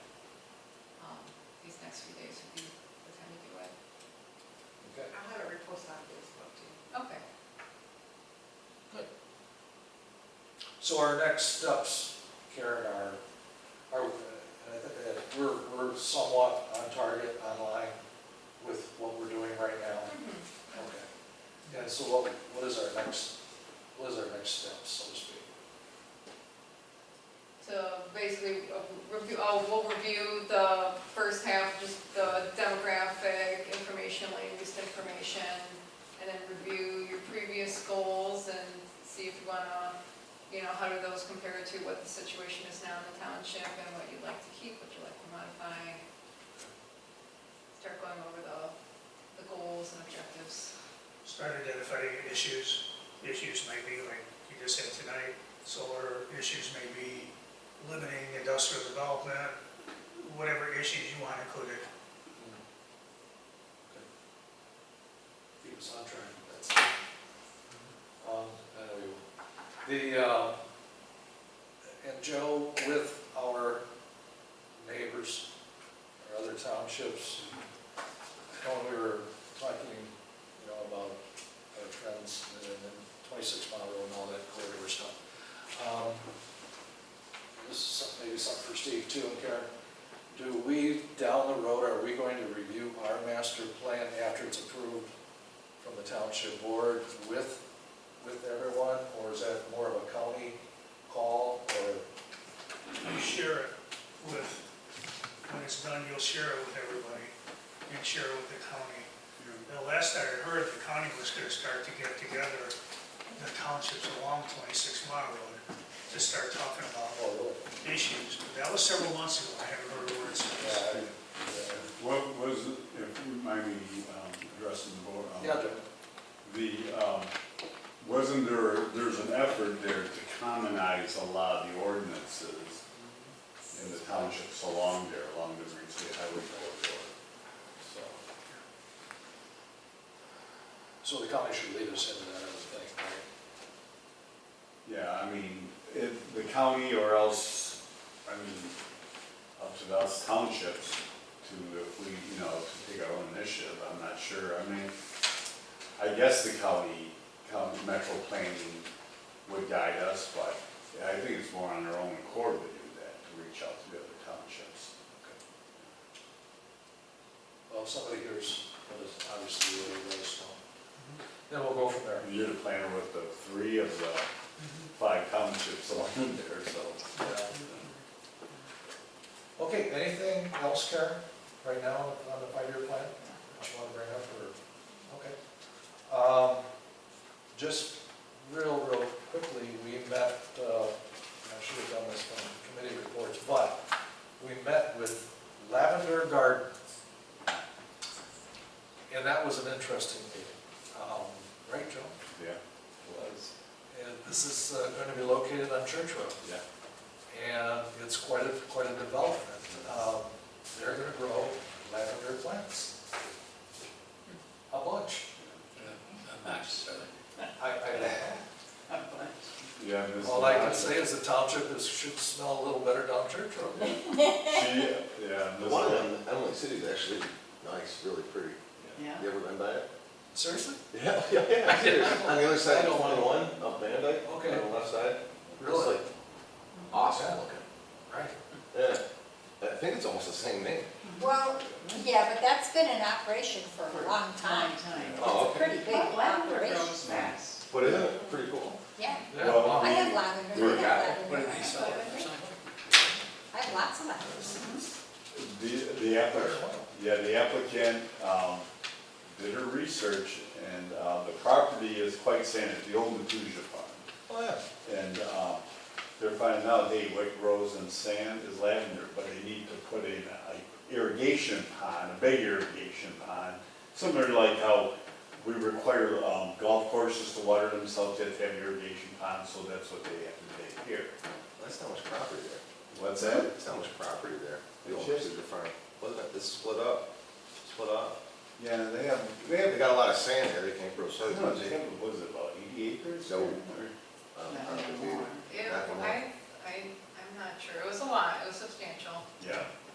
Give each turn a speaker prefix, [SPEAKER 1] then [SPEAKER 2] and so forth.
[SPEAKER 1] um, next few days would be the time to do it.
[SPEAKER 2] Okay.
[SPEAKER 3] I'll have a repost on Facebook too.
[SPEAKER 1] Okay.
[SPEAKER 2] So our next steps, Karen, are, are, and I think that we're, we're somewhat on target online with what we're doing right now. Okay. And so what, what is our next, what is our next step, so to speak?
[SPEAKER 1] So basically, uh, review, oh, we'll review the first half, just the demographic information, latest information, and then review your previous goals and see if you wanna, you know, how do those compare to what the situation is now in the township and what you'd like to keep, what you'd like to modify. Start going over the, the goals and objectives.
[SPEAKER 4] Start identifying issues. Issues may be, like you just said tonight, solar issues may be limiting industrial development, whatever issues you want included.
[SPEAKER 2] Okay. Keep us on track, that's. Um, I know you will. The, uh, and Joe, with our neighbors, our other townships, when we were talking, you know, about our friends and then twenty-six mile road and all that corridor stuff. um, This is something- maybe something for Steve too, and Karen, do we, down the road, are we going to review our master plan after it's approved from the township board with, with everyone? Or is that more of a county call or,
[SPEAKER 4] You share it with, when it's done, you'll share it with everybody and share it with the county. The last I had heard, the county was gonna start to get together, the townships along 26 Mile Road, to start talking about
[SPEAKER 2] or really?
[SPEAKER 4] issues. But That was several months ago, I haven't heard a word since.
[SPEAKER 2] uh, Yeah, I- yeah.
[SPEAKER 5] What was, if you mind me um, addressing the board, um,
[SPEAKER 2] Yeah, Joe.
[SPEAKER 5] the, um, wasn't there, there's an effort there to commonize a lot of the ordinances in the townships along there, along the Green State Highway corridor, so.
[SPEAKER 2] So the county should lead us into that, I would think, right?
[SPEAKER 5] Yeah, I mean, it, the county or else, I mean, up to us townships to, if we, you know, to take our own initiative, I'm not sure, I mean, I guess the county, county metro planning would guide us, but I think it's more on their own accord to do that, to reach out to the other townships.
[SPEAKER 2] Well, if somebody hears, what is obviously, really, really small. Then we'll go from there.
[SPEAKER 5] You're the planner with the three of the five townships along there, so.
[SPEAKER 2] Yeah. Okay, anything else, Karen, right now on the five-year plan that you want to bring up, or, okay? Um, Just real, real quickly, we met, uh, I should have done this from committee reports, but we met with Lavender Garden. And that was an interesting meeting, Um, right, Joe?
[SPEAKER 5] Yeah,
[SPEAKER 2] Was. And this is going to be located on Church Road
[SPEAKER 5] yeah.
[SPEAKER 2] and it's quite a, quite a development. Um, They're gonna grow lavender plants. A bunch. I, I don't know.
[SPEAKER 5] Yeah. Ms.
[SPEAKER 2] All I can
[SPEAKER 5] Lodge-
[SPEAKER 2] say is the township is, should smell a little better down Church Road.
[SPEAKER 5] She, yeah.
[SPEAKER 6] The
[SPEAKER 5] Ms.
[SPEAKER 6] one
[SPEAKER 5] Lodge-
[SPEAKER 6] in Emily City is actually nice, really pretty. You ever been by it?
[SPEAKER 2] Seriously?
[SPEAKER 6] Yeah, yeah, yeah. seriously. On the other side
[SPEAKER 2] I
[SPEAKER 6] of
[SPEAKER 2] don't know.
[SPEAKER 6] twenty-one, up Van Dyke, on
[SPEAKER 2] Okay.
[SPEAKER 6] the left side. It's
[SPEAKER 2] Really?
[SPEAKER 6] like awesome looking.
[SPEAKER 2] Right.
[SPEAKER 6] Yeah. I think it's almost the same name.
[SPEAKER 7] Well, yeah, but that's been in operation for a long time.
[SPEAKER 6] Oh,
[SPEAKER 7] It's a
[SPEAKER 6] okay.
[SPEAKER 7] pretty big
[SPEAKER 3] But lavender
[SPEAKER 7] operation,
[SPEAKER 3] grows fast.
[SPEAKER 6] But isn't it pretty cool?
[SPEAKER 7] yeah.
[SPEAKER 2] Yeah.
[SPEAKER 5] Well,
[SPEAKER 6] Oh.
[SPEAKER 7] I have
[SPEAKER 5] Where
[SPEAKER 7] lavender, I
[SPEAKER 6] you got it?
[SPEAKER 7] have lavender. I have lots of lavender.
[SPEAKER 5] The, the applicant, yeah, the applicant, um, did her research and, uh, the property is quite sanitary, the old Metuja farm.
[SPEAKER 2] Oh, yeah.
[SPEAKER 5] And, um, they're finding out, hey, what grows in sand is lavender, but they need to put in a irrigation pond, a big irrigation pond. Similar to like how we require, um, golf courses to water themselves, they have to have irrigation ponds, so that's what they have to do here.
[SPEAKER 6] That's not much property there.
[SPEAKER 5] What's that?
[SPEAKER 6] It's not much property there. The old
[SPEAKER 5] It is.
[SPEAKER 6] Cedar Farm. Wasn't it, it's split up, split up.
[SPEAKER 5] Yeah, they have, they
[SPEAKER 6] They
[SPEAKER 5] have,
[SPEAKER 6] got a lot of sand there, they can't grow
[SPEAKER 5] I don't know,
[SPEAKER 6] soybeans.
[SPEAKER 5] they have, what is it, about eighty acres?
[SPEAKER 6] No.
[SPEAKER 5] Or-
[SPEAKER 6] I don't- I don't think they do.
[SPEAKER 1] Yeah, I, I, I'm not sure, it was a lot, it was substantial.
[SPEAKER 5] Yeah,